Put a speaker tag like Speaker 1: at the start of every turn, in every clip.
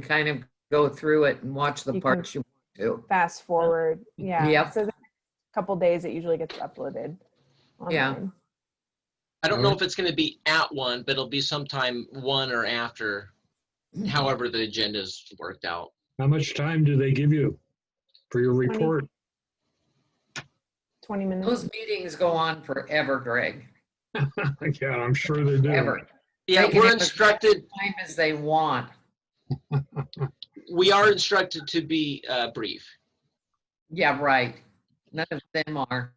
Speaker 1: kind of go through it and watch the
Speaker 2: You can-
Speaker 1: parts you want
Speaker 2: fast forward. Yeah.
Speaker 1: Yep.
Speaker 2: So the couple days it usually gets uploaded.
Speaker 1: Yeah.
Speaker 2: online.
Speaker 3: I don't know if it's gonna be at one, but it'll be sometime one or after,
Speaker 1: to.
Speaker 3: however the agenda's worked out.
Speaker 4: How much time do they give you for your
Speaker 2: Twenty.
Speaker 4: report?
Speaker 2: 20 minutes.
Speaker 1: Those meetings go on forever, Greg,
Speaker 4: Yeah, I'm sure they do.
Speaker 1: ever,
Speaker 3: Yeah,
Speaker 1: They can
Speaker 3: we're
Speaker 1: have a-
Speaker 3: instructed,
Speaker 1: time as they want.
Speaker 3: we are instructed to be uh, brief.
Speaker 1: Yeah, right. None of them are.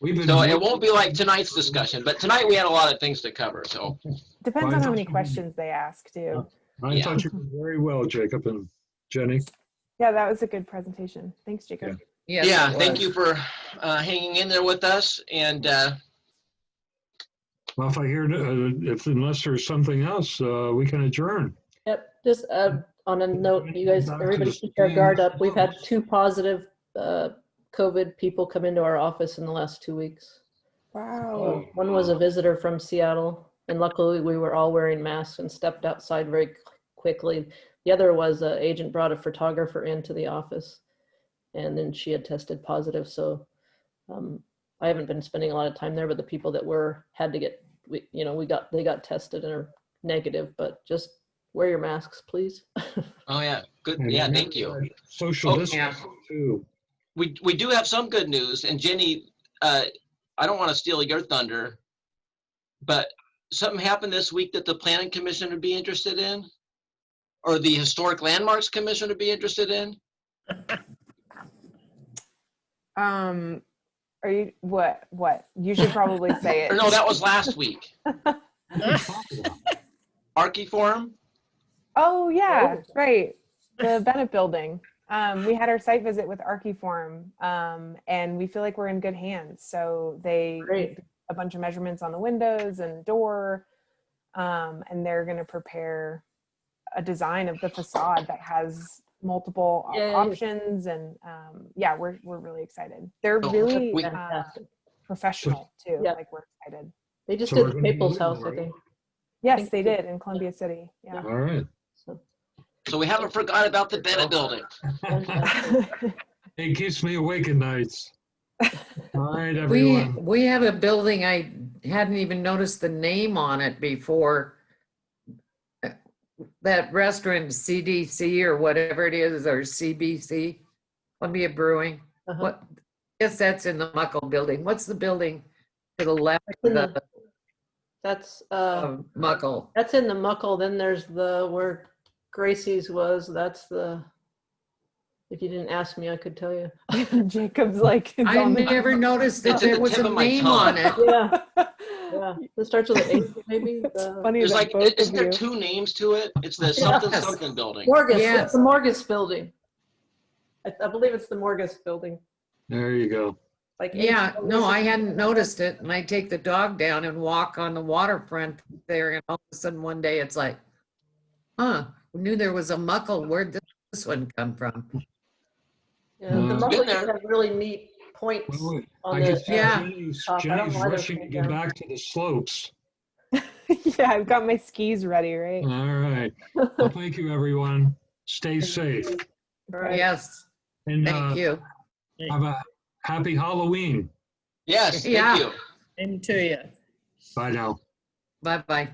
Speaker 4: We've been.
Speaker 3: So it won't be like tonight's discussion, but tonight we had a lot of things to cover, so.
Speaker 2: Depends on how many
Speaker 4: Fine.
Speaker 2: questions they ask, too.
Speaker 4: I thought you did very well, Jacob and Jenny.
Speaker 2: Yeah, that was a good presentation. Thanks, Jacob.
Speaker 1: Yes,
Speaker 3: Yeah,
Speaker 1: it
Speaker 3: thank
Speaker 1: was.
Speaker 3: you for uh, hanging in there with us and uh,
Speaker 4: Well, if I hear, uh, if unless there's something else, uh, we can adjourn.
Speaker 5: Yep, just uh, on a note, you guys, everybody keep your guard up. We've had two positive uh, COVID people come into our office in the last two weeks.
Speaker 2: Wow.
Speaker 5: So One was a visitor from Seattle, and luckily we were all wearing masks and stepped outside very qu- quickly. The other was an agent brought a photographer into the office, and then she had tested positive, so um, I haven't been spending a lot of time there, but the people that were, had to get, we- you know, we got, they got tested and are negative, but just wear your masks, please.
Speaker 3: Oh, yeah, good,
Speaker 4: And
Speaker 3: yeah,
Speaker 4: remember
Speaker 3: thank you.
Speaker 4: that Social
Speaker 3: Oh,
Speaker 1: yeah.
Speaker 4: distancing too.
Speaker 3: We, we do have some good news, and Jenny, uh, I don't want to steal your thunder, but something happened this week that the planning commission would be interested in? Or the historic landmarks commission would be interested in?
Speaker 2: Um, are you, what, what? You should probably say it.
Speaker 3: Or no, that was last week. Archie Forum?
Speaker 2: Oh, yeah, right. The Bennett Building. Um, we had our site visit with Archiform, um, and we feel like we're in good hands. So they
Speaker 5: Great.
Speaker 2: a bunch of measurements on the windows and door, um, and they're going to prepare a design of the facade that has multiple op-
Speaker 5: Yay.
Speaker 2: options. And um, yeah, we're we're really excited. They're
Speaker 3: Oh,
Speaker 2: really
Speaker 3: we-
Speaker 2: uh,
Speaker 5: Fantastic.
Speaker 2: professional too.
Speaker 5: Yeah.
Speaker 2: Like we're excited.
Speaker 5: They just
Speaker 4: So we're
Speaker 5: did the
Speaker 4: gonna be
Speaker 5: People's
Speaker 4: moving,
Speaker 5: House, I
Speaker 4: right?
Speaker 5: think.
Speaker 2: Yes,
Speaker 5: Thank
Speaker 2: they
Speaker 5: you.
Speaker 2: did in Columbia City. Yeah.
Speaker 4: All right.
Speaker 5: So,
Speaker 3: So we haven't forgot about the Bennett Building.
Speaker 5: fantastic.
Speaker 4: It keeps me awake at nights. All right,
Speaker 1: We,
Speaker 4: everyone.
Speaker 1: we had a building, I hadn't even noticed the name on it before. Uh, That restaurant CDC or whatever it is, or CBC, Columbia Brewing.
Speaker 5: Uh-huh.
Speaker 1: What, guess that's in the Muckle Building. What's the building to the left of
Speaker 5: in the-
Speaker 1: the
Speaker 5: That's,
Speaker 4: Um,
Speaker 5: uh,
Speaker 1: of Muckle?
Speaker 5: that's in the Muckle, then there's the, where Gracie's was, that's the, if you didn't ask me, I could tell you.
Speaker 2: Jacob's like it's
Speaker 1: I
Speaker 2: on the-
Speaker 1: never noticed that
Speaker 3: It's at
Speaker 1: there
Speaker 3: the
Speaker 1: was
Speaker 3: tip
Speaker 1: a
Speaker 3: of my
Speaker 1: name
Speaker 3: tongue.
Speaker 1: on it.
Speaker 5: Yeah, yeah. It starts with an H, maybe?
Speaker 2: It's
Speaker 5: the-
Speaker 2: funny
Speaker 3: There's
Speaker 2: that
Speaker 3: like,
Speaker 2: both
Speaker 3: isn't
Speaker 2: of
Speaker 3: there
Speaker 2: you-
Speaker 3: two names to it? It's the something,
Speaker 1: Yes.
Speaker 3: something building.
Speaker 5: Morgus,
Speaker 1: Yes.
Speaker 5: it's the Morgus building. I, I believe it's the Morgus building.
Speaker 4: There you go.
Speaker 5: Like H
Speaker 1: Yeah, no,
Speaker 5: building.
Speaker 1: I hadn't noticed it, and I take the dog down and walk on the waterfront there, and all of a sudden one day it's like, huh, knew there was a muckle, where'd this- this one come from?
Speaker 5: Yeah, The
Speaker 4: Mm.
Speaker 5: Muckle
Speaker 3: Been there.
Speaker 5: just have really neat points
Speaker 4: Well,
Speaker 5: on
Speaker 4: I could
Speaker 5: the.
Speaker 4: see
Speaker 1: Yeah.
Speaker 4: Jenny's
Speaker 5: Uh, I don't know
Speaker 4: Jenny's
Speaker 5: why they're
Speaker 4: rushing to
Speaker 5: taking
Speaker 4: get
Speaker 5: down.
Speaker 4: back to the slopes.
Speaker 2: yeah, I've got my skis ready, right?
Speaker 3: Mm.
Speaker 4: All right. Well, thank you, everyone. Stay safe.
Speaker 5: All right.
Speaker 1: Yes,
Speaker 4: And uh,
Speaker 1: thank you.
Speaker 4: have a happy Halloween.
Speaker 3: Yes,
Speaker 1: Yeah.
Speaker 3: thank you.
Speaker 6: Into you.
Speaker 4: Bye now.
Speaker 1: Bye-bye.